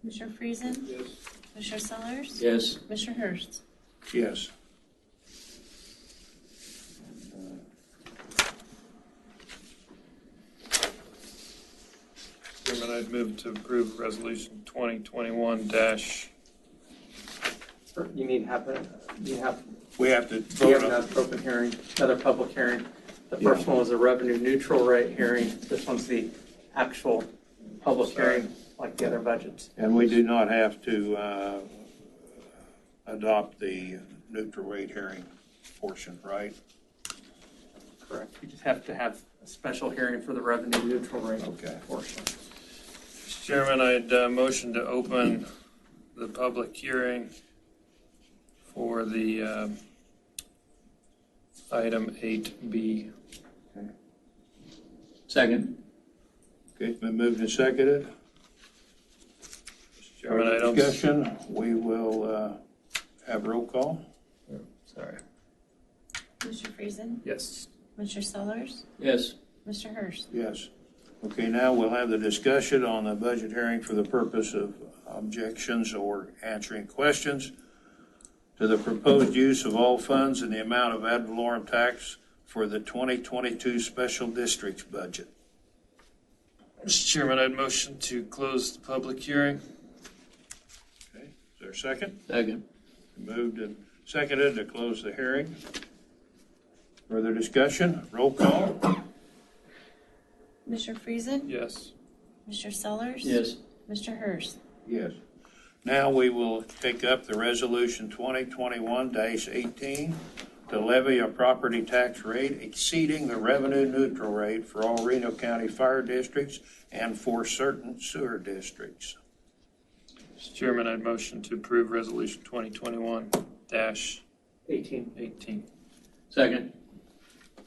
Commissioner Friesen? Yes. Commissioner Sellers? Yes. Commissioner Hurst? Yes. Chairman, I'd move to approve Resolution 2021 dash, You need to have, a- you have, We have to you have vote on, another open hearing, another public hearing. The first one was a revenue neutral rate hearing. This one's the actual public hearing, like the other budgets. and we do not have to uh, adopt the neutral rate hearing portion, right? Correct. You just have to have a special hearing for the revenue neutral rate Okay. portion. Mr. Chairman, I'd uh, motion to open the public hearing for the um, item 8B. Second. Okay, it's been moved and seconded. Mr. Chairman, I Further don't, discussion, we will uh, have roll call. sorry, Commissioner Friesen? yes. Commissioner Sellers? Yes. Mr. Hurst? Yes. Okay, now we'll have the discussion on the budget hearing for the purpose of objections or answering questions to the proposed use of all funds and the amount of ad valorem tax for the 2022 special districts budget. Mr. Chairman, I'd motion to close the public hearing. Okay, is there a second? Second. Moved and seconded to close the hearing. Further discussion, roll call? Commissioner Friesen? Yes. Commissioner Sellers? Yes. Mr. Hurst? Yes. Now we will take up the resolution 2021-18 to levy a property tax rate exceeding the revenue neutral rate for all Reno County fire districts and for certain sewer districts. Mr. Chairman, I'd motion to approve Resolution 2021 dash 18. 18. Second.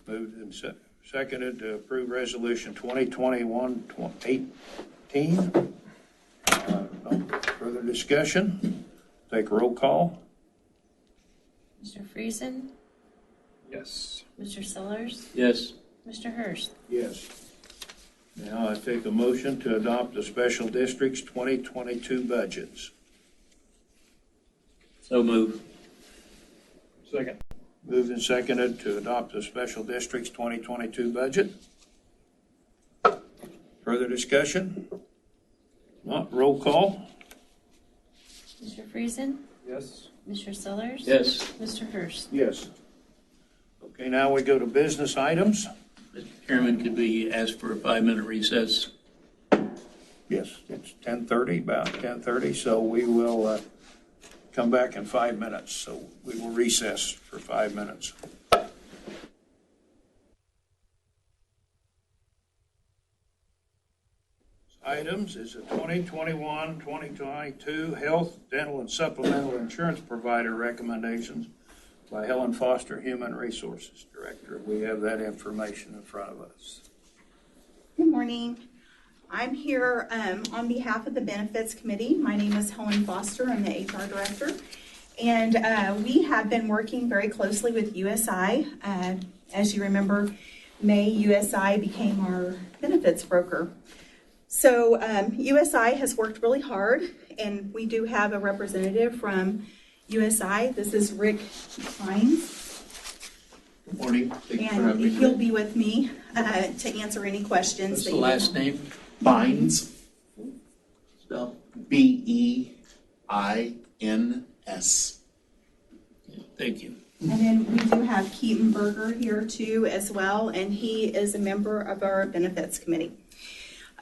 Moved and se- seconded to approve resolution 2021-18. Uh, no Further discussion? Take roll call? Commissioner Friesen? Yes. Mr. Sellers? Yes. Mr. Hurst? Yes. Now I take a motion to adopt the special districts 2022 budgets. So move. Second. Moved and seconded to adopt the special districts 2022 budget. Further discussion? Not roll call? Mr. Friesen? Yes. Mr. Sellers? Yes. Mr. Hurst? Yes. Okay, now we go to business items. Mr. Chairman, could we ask for a five-minute recess? Yes, it's 10:30, about 10:30, so we will uh, come back in five minutes. So we will recess for five minutes. Items is a 2021-2022 Health, Dental, and Supplemental Insurance Provider Recommendations by Helen Foster, Human Resources Director. We have that information in front of us. Good morning. I'm here um, on behalf of the Benefits Committee. My name is Helen Foster. I'm the HR Director. And uh, we have been working very closely with USI. Uh, As you remember, May USI became our benefits broker. So um, USI has worked really hard, and we do have a representative from USI. This is Rick Hines. Good morning. Thank you for And having me. he'll be with me uh, to answer any questions. What's that the you have. last name? Bynes, Spell? B E I N S. Thank you. And then we do have Keaton Berger here too as well, and he is a member of our benefits committee.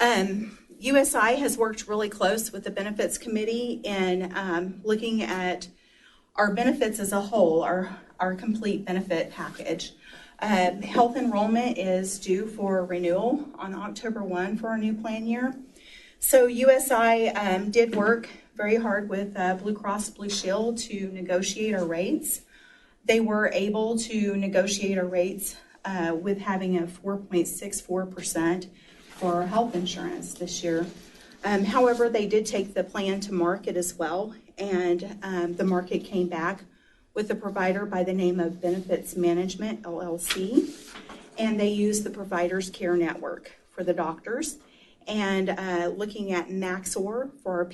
Um, USI has worked really close with the benefits committee in um, looking at our benefits as a whole, our, our complete benefit package. Um, Health enrollment is due for renewal on October 1 for our new plan year. So USI um, did work very hard with uh, Blue Cross Blue Shield to negotiate our rates they were able to negotiate our rates uh, with having a 4.64% for our health insurance this year. Um, However, they did take the plan to market as well, and um, the market came back with a provider by the name of Benefits Management LLC, and they used the Providers Care Network for the doctors, and uh, looking at Maxor for our